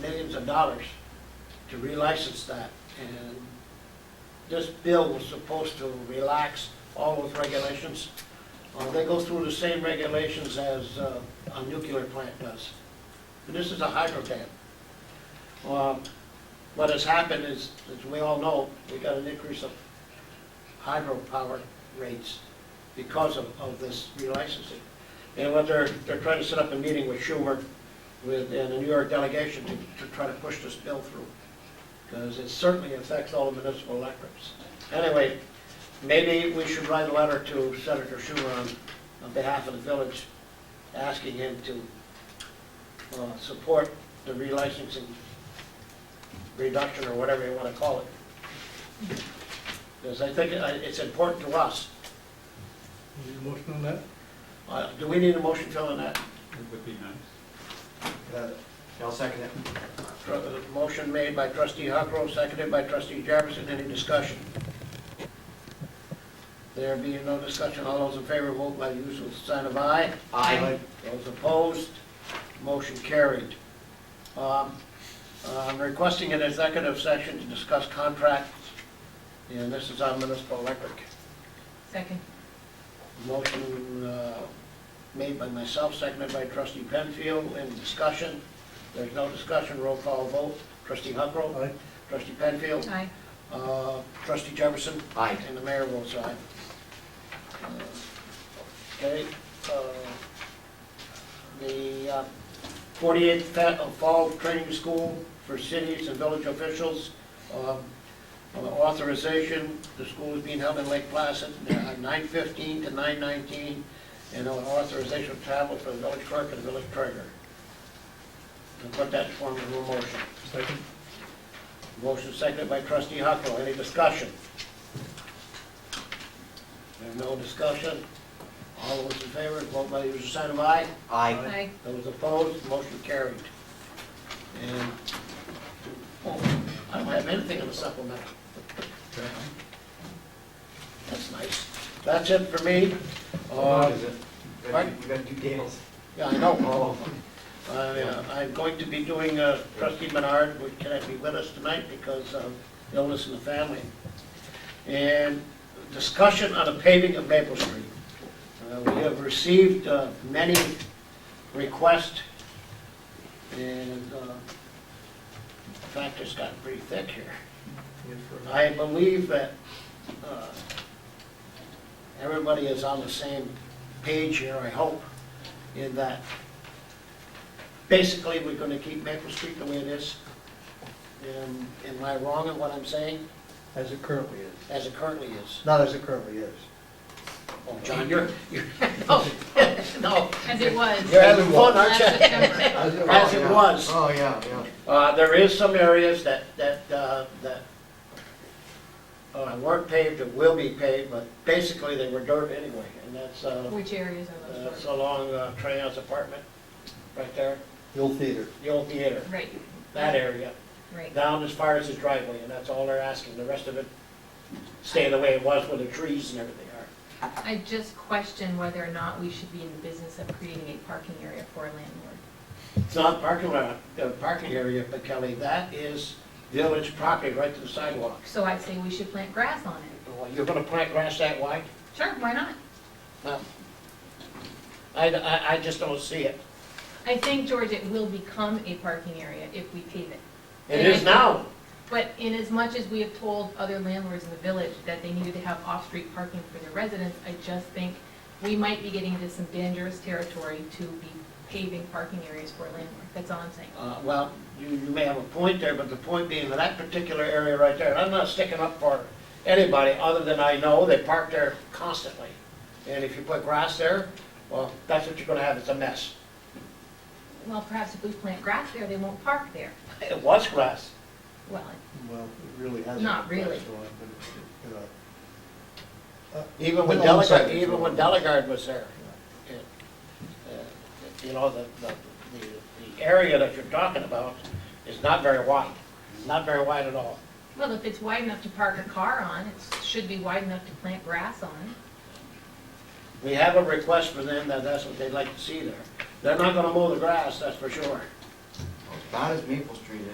millions of dollars to relicense that. And this bill was supposed to relax all those regulations. Uh, They go through the same regulations as uh, a nuclear plant does. And this is a hydro dam. Uh, What has happened is, as we all know, we got an increase of hydropower rates because of, of this relicensing. And what they're, they're trying to set up a meeting with Schumer, with, and the New York delegation to, to try to push this bill through. Because it certainly affects all the municipal electorates. Anyway, maybe we should write a letter to Senator Schumer on, on behalf of the village, asking him to, uh, support the relicensing reduction, or whatever you wanna call it. Because I think uh, it's important to us. Any motion on that? Uh, Do we need a motion to fill in that? It would be nice. Uh, I'll second it. Tr- uh, Motion made by trustee Huckrow, seconded by trustee Jefferson. Any discussion? There being no discussion, all those in favor vote by the usual sign of aye. Aye. Those opposed, motion carried. Um, I'm requesting an executive session to discuss contracts, and this is on municipal electric. Second. Motion uh, made by myself, seconded by trustee Penfield. Any discussion? There's no discussion, roll call vote. Trustee Huckrow. Aye. Trustee Penfield. Aye. Uh, Trustee Jefferson. Aye. And the mayor votes aye. Uh, Okay. uh, The uh, 48th Fa- uh, Fall Training School for Cities and Village Officials. um, uh, Authorization, the school is being held in Lake Placid, uh, 9:15 to 9:19. And an authorization of travel for the village clerk and the village treasurer. And put that in form of a motion. Second. Motion seconded by trustee Huckrow. Any discussion? There's no discussion. All those in favor, vote by the usual sign of aye. Aye. Aye. Those opposed, motion carried. And, oh, I don't have anything in the supplemental. That's nice. That's it for me. Uh, We gotta do- we gotta do Dale's. Yeah, I know. Oh, I, uh, I'm going to be doing uh, trustee Menard, which cannot be with us tonight because of illness in the family. And discussion on the paving of Maple Street. Uh, We have received uh, many requests, and uh, in fact, it's gotten pretty thick here. Yes, sir. I believe that uh, everybody is on the same page here, I hope, in that basically we're gonna keep Maple Street the way it is. Um, Am I wrong in what I'm saying, As it currently is. as it currently is? Not as it currently is. Oh, John, you're, you're, no, no, As it was. you're having fun, aren't Last you? September. As it As was. it yeah. was. Oh, yeah, yeah. Uh, there is some areas that, that, uh, that uh, weren't paved or will be paved, but basically they were dirt anyway, and that's, uh, Which areas are those that's for? along uh, Trey's apartment, right there, The old theater. the old theater, Right, that area, right. down as far as his driveway, and that's all they're asking, the rest of it stay the way it was with the trees and everything are. I just question whether or not we should be in the business of creating a parking area for a landlord. It's not parking lot, uh, parking area, but Kelly, that is village property right to the sidewalk. So I'd say we should plant grass on it. Well, You're gonna plant grass that wide? Sure, why not? No. I, I, I just don't see it. I think, George, it will become a parking area if we pave it. It is now. But in as much as we have told other landlords in the village that they needed to have off-street parking for their residents, I just think we might be getting into some dangerous territory to be paving parking areas for a landlord. That's all I'm saying. Uh, well, you, you may have a point there, but the point being that that particular area right there, and I'm not sticking up for anybody other than I know they park there constantly. And if you put grass there, well, that's what you're gonna have, it's a mess. Well, perhaps if we plant grass there, they won't park there. It was grass. Well, Well, it really hasn't. Not really. That's the one, but it's, you know, Even when Been on site Delegard, even before. when Delegard was there. It- uh, You know, the, the, the the area that you're talking about is not very wide, not very wide at all. well, if it's wide enough to park a car on, it should be wide enough to plant grass on. We have a request for them that that's what they'd like to see there. They're not gonna mow the grass, that's for sure. Not as Maple Street